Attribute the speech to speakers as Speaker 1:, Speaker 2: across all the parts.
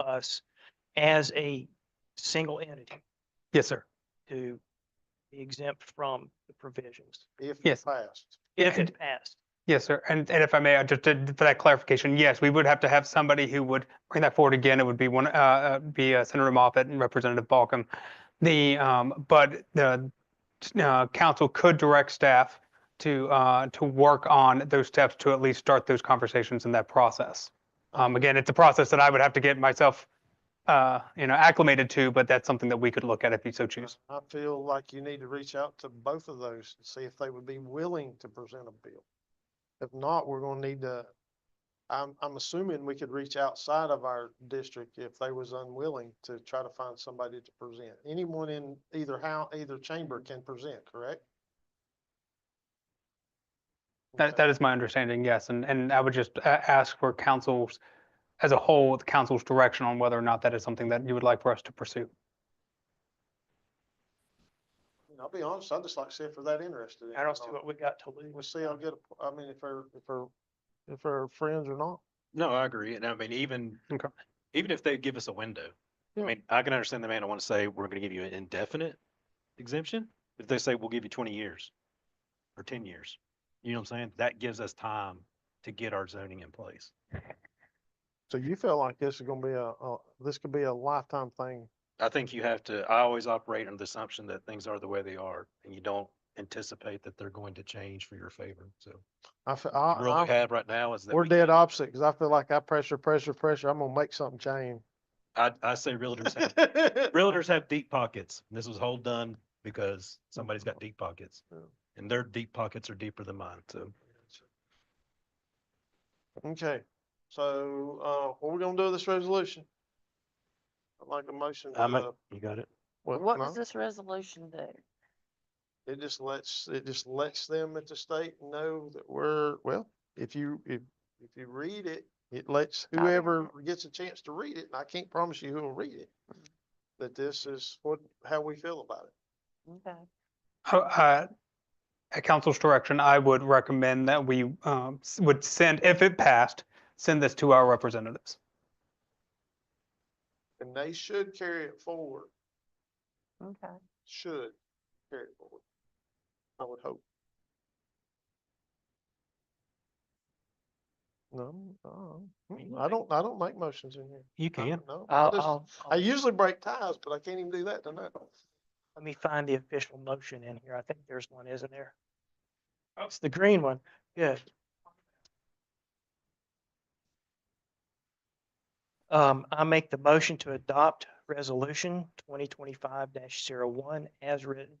Speaker 1: us as a single entity
Speaker 2: Yes, sir.
Speaker 1: to be exempt from the provisions
Speaker 3: If
Speaker 2: Yes.
Speaker 3: it passed.
Speaker 1: if
Speaker 2: And-
Speaker 1: it passed.
Speaker 2: Yes, sir. And, and if I may, I just did for that clarification, yes, we would have to have somebody who would bring that forward again. It would be one, uh, uh, be uh, Senator Moffett and Representative Balkum. The, um, but the, uh, council could direct staff to, uh, to work on those steps to at least start those conversations in that process. Um, again, it's a process that I would have to get myself, uh, you know, acclimated to, but that's something that we could look at if you so choose.
Speaker 3: I feel like you need to reach out to both of those and see if they would be willing to present a bill. If not, we're gonna need to, I'm, I'm assuming we could reach outside of our district if they was unwilling to try to find somebody to present. Anyone in either how, either chamber can present, correct?
Speaker 2: That, that is my understanding, yes. And, and I would just a- ask for councils, as a whole, the council's direction on whether or not that is something that you would like for us to pursue.
Speaker 3: And I'll be honest, I'd just like to see if they're that interested. in
Speaker 1: I
Speaker 3: it
Speaker 1: don't
Speaker 3: or
Speaker 1: see
Speaker 3: not.
Speaker 1: what we got to lose.
Speaker 3: We'll see how good, I mean, if her, if her, if her friends or not.
Speaker 4: No, I agree. And I mean, even,
Speaker 2: Okay.
Speaker 4: even if they give us a window, I
Speaker 3: Yeah.
Speaker 4: mean, I can understand the man I want to say, we're going to give you an indefinite exemption. If they say, we'll give you twenty years or ten years, you know what I'm saying? That gives us time to get our zoning in place.
Speaker 3: So you feel like this is gonna be a, a- this could be a lifetime thing?
Speaker 4: I think you have to, I always operate under the assumption that things are the way they are and you don't anticipate that they're going to change for your favor. So
Speaker 3: I, f- I-
Speaker 4: the rule we
Speaker 3: I,
Speaker 4: have right now is that.
Speaker 3: we're
Speaker 4: we can't-
Speaker 3: dead opposite, cause I feel like I pressure, pressure, pressure, I'm gonna make something change.
Speaker 4: I, I say realtors have, realtors have deep pockets. and This was whole done because somebody's got deep pockets.
Speaker 3: Yeah.
Speaker 4: And their deep pockets are deeper than mine, so.
Speaker 3: Okay, so, uh, what we gonna do with this resolution? I'd like a motion to,
Speaker 4: I make-
Speaker 3: uh,
Speaker 4: You got it?
Speaker 3: what,
Speaker 5: What
Speaker 3: no?
Speaker 5: does this resolution do?
Speaker 3: It just lets, it just lets them at the state know that we're, well, if you, if, if you read it, it lets
Speaker 5: Not yet.
Speaker 3: whoever gets a chance to read it, and I can't promise you who'll read it. That this is what, how we feel about it.
Speaker 5: Okay.
Speaker 2: Uh, uh, At council's direction, I would recommend that we um, s- would send, if it passed, send this to our representatives.
Speaker 3: And they should carry it forward,
Speaker 5: Okay.
Speaker 3: should carry it forward. I would hope. No, no,
Speaker 4: mean,
Speaker 3: mm,
Speaker 4: you
Speaker 3: I don't, I don't make motions in here.
Speaker 4: You
Speaker 3: I
Speaker 4: can.
Speaker 3: don't know. I
Speaker 1: I'll,
Speaker 3: just-
Speaker 1: I'll,
Speaker 3: I
Speaker 1: I'll-
Speaker 3: usually break ties, but I can't even do that tonight.
Speaker 1: let me find the official motion in here. I think there's one, isn't there? Oh, It's the green one. Good. Um, I make the motion to adopt resolution twenty twenty-five one as written.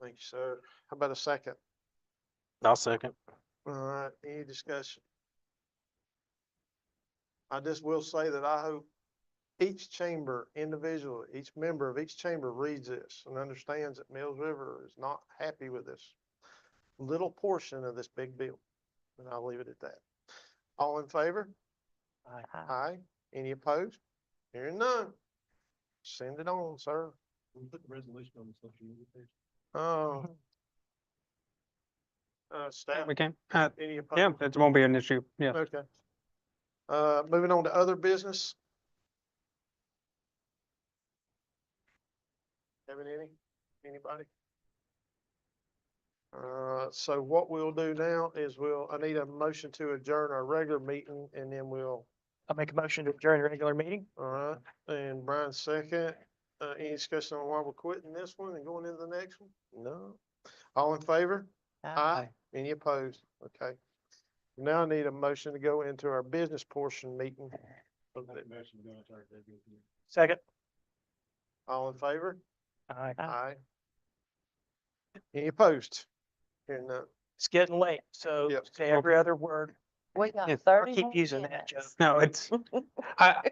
Speaker 3: Thank you, sir. How about a second?
Speaker 4: I'll second.
Speaker 3: All right, any discussion? I just will say that I hope each chamber individually, each member of each chamber reads this and understands that Mills River is not happy with this little portion of this big bill. And I'll leave it at that. All in favor?
Speaker 1: Aye.
Speaker 5: Uh,
Speaker 3: Aye. Any opposed? Hearing none. Send it on, sir.
Speaker 4: We put the resolution on the social media page.
Speaker 3: Oh. Uh, staff,
Speaker 2: We can, uh,
Speaker 3: any opposed?
Speaker 2: yeah, it won't be an issue, yeah.
Speaker 3: Okay. Uh, moving on to other business. Having any, anybody? Uh, so what we'll do now is we'll, I need a motion to adjourn our regular meeting and then we'll,
Speaker 1: I make a motion to adjourn the regular meeting.
Speaker 3: all right, and Brian second. Uh, any discussion on why we're quitting this one and going into the next one? No. All in favor?
Speaker 5: uh,
Speaker 3: Aye. Any opposed? Okay. Now I need a motion to go into our business portion meeting. of the-
Speaker 1: Second.
Speaker 3: All in favor?
Speaker 1: Aye.
Speaker 5: Aye.
Speaker 3: Aye. Any opposed? Hearing none.
Speaker 1: It's getting late, so
Speaker 3: Yep.
Speaker 1: say every other word.
Speaker 5: We got
Speaker 2: Yes,
Speaker 1: I'll
Speaker 5: thirty
Speaker 1: keep using that joke.
Speaker 5: minutes.
Speaker 2: No, it's, I,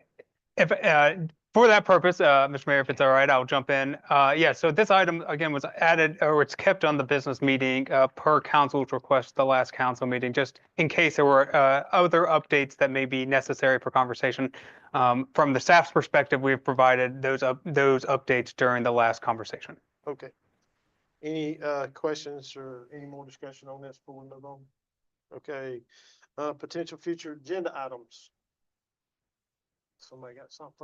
Speaker 2: if, uh, for that purpose, uh, Mr. Mayor, if it's all right, I'll jump in. Uh, yeah, so this item again was added or it's kept on the business meeting, uh, per council's request, at the last council meeting, just in case there were, uh, other updates that may be necessary for conversation. Um, from the staff's perspective, we've provided those up, those updates during the last conversation.
Speaker 3: Okay. Any uh questions or any more discussion on this before we move on? Okay, uh potential future agenda items. Somebody got something?